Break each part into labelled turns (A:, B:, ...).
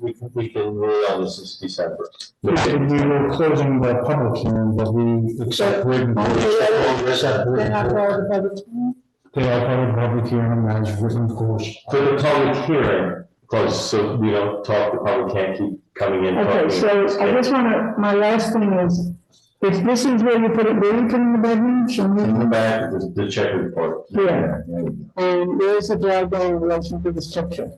A: We can- we can rule on this is December.
B: We were closing the public hearing, but we accept written. accept
C: They're
B: written-
C: not part of the public hearing?
B: They are part of public hearing as written course.
A: For the public hearing, close, so we don't talk, the public can't keep coming in.
C: Okay,
A: talking.
C: so I just wanna, my last thing is, if this is where you put it, where you put in the bedroom, show
A: In the
C: me.
A: back, the, the check report.
C: Yeah. And there is a driveway in relation to the structure.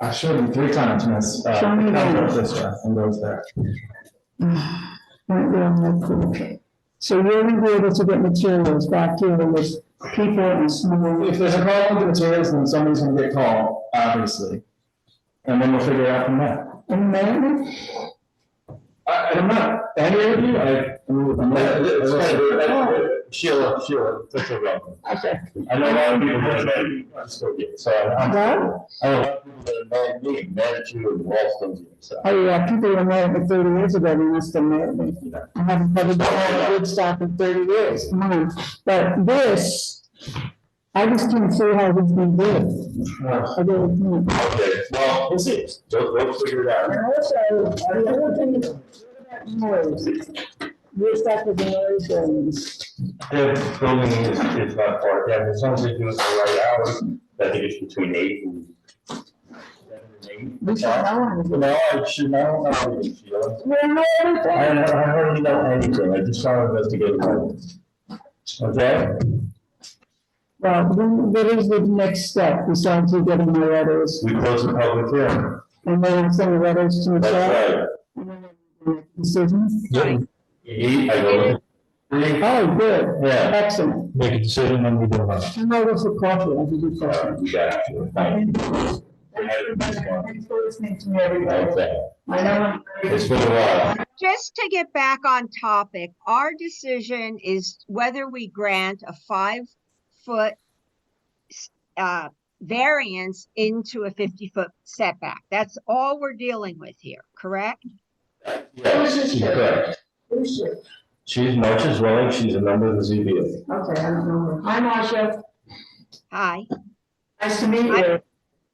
D: I showed you three times, miss. Uh,
C: Show me
D: it comes
C: that.
D: up This way and goes there.
C: Right there on that corner. So you're gonna be able to get materials back here with people and small.
D: If there's a problem with the materials, then somebody's gonna get called, obviously. And then we'll figure it out from there.
C: And then,
D: I, I'm not angry with you, I. I'm not-
A: Sheila, Sheila, that's a problem.
C: okay,
A: I know a lot of people that are, I'm still getting, so I'm.
C: Well-
A: I know a lot of people that are mad, at me, mad at you and all those things, so.
C: oh yeah, people were mad at me thirty years ago, they must have mad at me. I haven't had a good stock in thirty years, come on. But this, I just didn't see how this been done.
D: No.
C: I don't know.
A: Okay, well, we'll see, we'll, we'll figure it out.
C: And also, the other thing is, what about noise? Your stuff with noise and.
A: The building is, is not uh, part, yeah, as long as they do it the right hours, I think it's between eight and. seven
C: We
A: should
C: know.
A: and eight. No, I should, I don't know, anything, Sheila.
C: Well, no,
A: I,
C: everything.
A: I hardly know anything, I just want to investigate. Okay?
C: Well, then what is the next step besides you getting the letters?
A: We close the public hearing.
C: And then send the letters to the chair?
A: That's right.
C: and then make a Decision?
A: Eight, I go. Three,
C: Oh, good,
A: yeah.
C: excellent.
B: Make a decision and we do that.
C: And I was for coffee, I did do
A: Uh,
C: coffee.
A: We got you.
C: Thanks for listening to me, everybody.
A: Okay,
C: I know I'm.
A: it's been a while.
E: just to get back on topic, our decision is whether we grant a five-foot s- uh, variance into a fifty-foot setback. That's all we're dealing with here, correct?
A: Yes, she's correct. She's much as well, she's a member of the ZBA.
C: Okay, I don't know. Hi, Marcia.
E: Hi,
C: Nice to meet you.
E: Hi.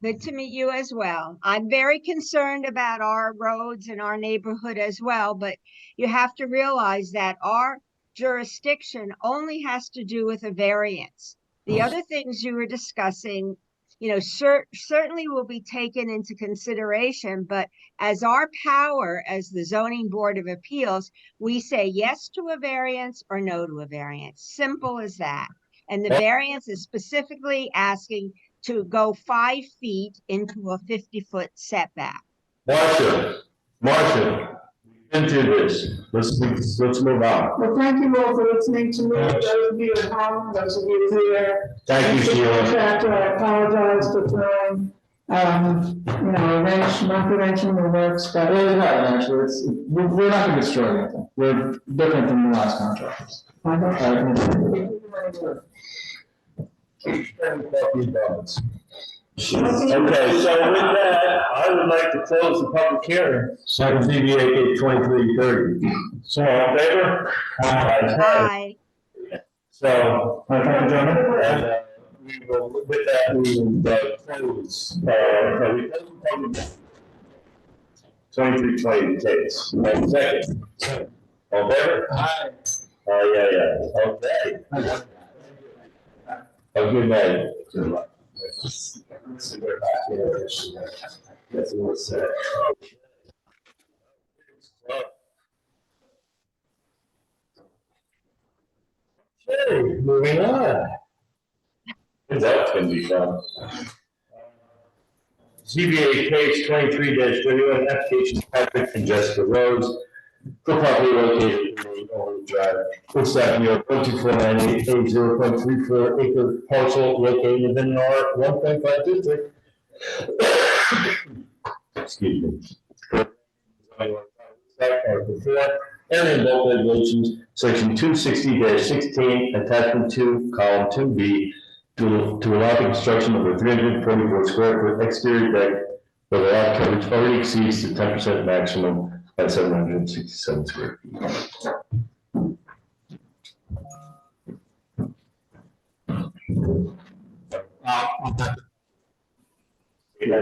E: good to meet you as well. I'm very concerned about our roads and our neighborhood as well, but you have to realize that our jurisdiction only has to do with a variance. The other things you were discussing, you know, cer- certainly will be taken into consideration, but as our power as the zoning board of appeals, we say yes to a variance or no to a variance. Simple as that. And the variance is specifically asking to go five feet into a fifty-foot setback.
A: Marcia, Marcia, we've been through this. Let's, let's let's move on.
C: Well, thank you all for listening to me, those of you at home, those of you here.
A: Thank you, Sheila.
C: Contractor, I apologize for throwing, um, you know, a wrench, not wrenching the works,
D: It
C: but
D: really happened, actually, it's, we're, we're not gonna destroy anything, we're different from the last contractors. Uh,
C: I don't.
D: I can-
A: Okay, so with that, I would like to close the public hearing. Second ZBA case twenty-three thirty. So, all in favor? Aye.
E: Hi.
A: So, my friend gentlemen, and, uh, we will, with that, we will, uh, close, uh, uh, we close the public. Twenty-three twenty case, and second. All in favor? Aye. Oh, yeah, yeah, okay. Have a good night. Good luck. That's what it said. Okay, moving on. That's gonna be fun. ZBA case twenty-three thirty-one, application Patrick and Jessica Rose for property located in the Old Drive, Woods Avenue, one two four nine eight eight zero point three four acre parcel located within an R one point five district. Excuse me. Article four, and in both regulations, section two sixty sixteen, attachment two, column two B, to, to allow the construction of a three hundred forty-four square foot exterior deck where the lot coverage already exceeds the ten percent maximum at seven hundred sixty-seven square feet.
D: Uh, I'll have to